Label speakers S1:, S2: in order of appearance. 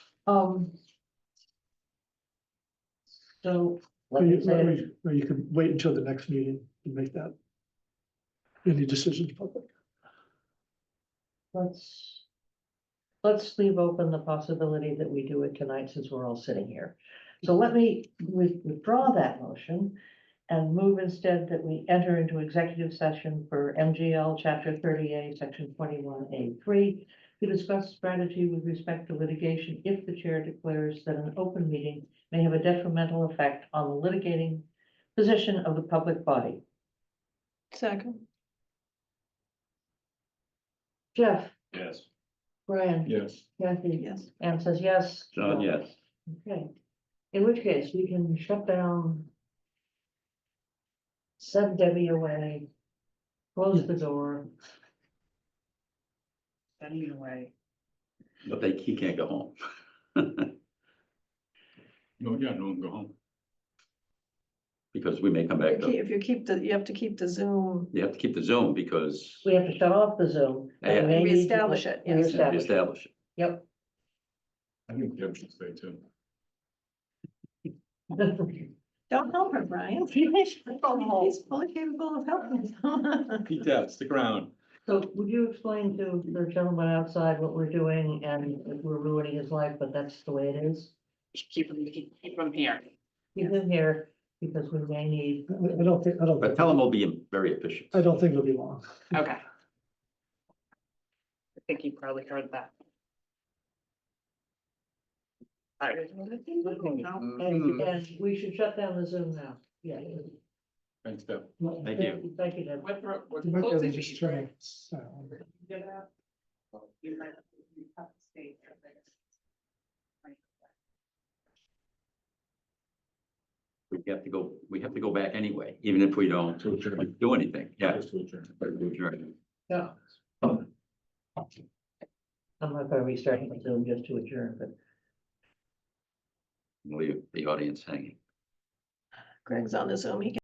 S1: Um. So,
S2: Or
S1: like
S2: you,
S1: I
S2: or
S1: said,
S2: you- or you can wait until the next meeting and make that. Any decisions public.
S1: let's. Let's leave open the possibility that we do it tonight since we're all sitting here. So let me with- withdraw that motion. And move instead that we enter into executive session for MGL chapter thirty-eight, section twenty-one A three. To discuss strategy with respect to litigation if the chair declares that an open meeting may have a detrimental effect on the litigating. Position of the public body.
S3: Second.
S1: Jeff,
S4: Yes.
S1: Brian.
S2: Yes.
S1: Kathy.
S3: Yes.
S1: Anne says yes.
S4: John, yes.
S1: Okay, in which case we can shut down. Send Debbie away. Close the door. Send me away.
S4: But they, he can't go home. No, yeah, no, go home. Because we may come back,
S3: If you keep- if you
S4: to-
S3: keep the, you have to keep the Zoom,
S4: you have to keep the Zoom because
S1: We have to shut off the Zoom. and
S4: Yeah.
S1: they need to-
S3: Reestablish it, yes.
S4: it's
S1: Reestablish, it.
S4: established.
S1: yep.
S4: I think Deb should stay too.
S3: don't help her, Brian. He's fully capable of helping.
S4: He does, stick around.
S1: So would you explain to the gentleman outside what we're doing and if we're ruining his life, but that's the way it is?
S5: keep them, keep keep them here.
S1: He's in here because we may need,
S2: I I don't think, I don't,
S4: But tell him we'll be very efficient.
S2: I don't think it'll be long.
S5: Okay. I think you probably heard that. All right.
S1: Mm-hmm.
S4: Mm,
S1: and we should shut down the Zoom now, yeah.
S4: Thanks, Deb.
S2: But
S4: Thank you.
S1: Thank you, Deb.
S5: What, what- what-
S2: they'll
S5: what-
S2: just try and sound.
S5: Get up. You might have to cut the stage or things.
S4: We have to go, we have to go back anyway, even if we don't do anything, yeah. Adjourn.
S1: Yeah. I'm not gonna restart my Zoom just to adjourn, but
S4: Leave the audience hanging.
S3: Greg's on the Zoom, he can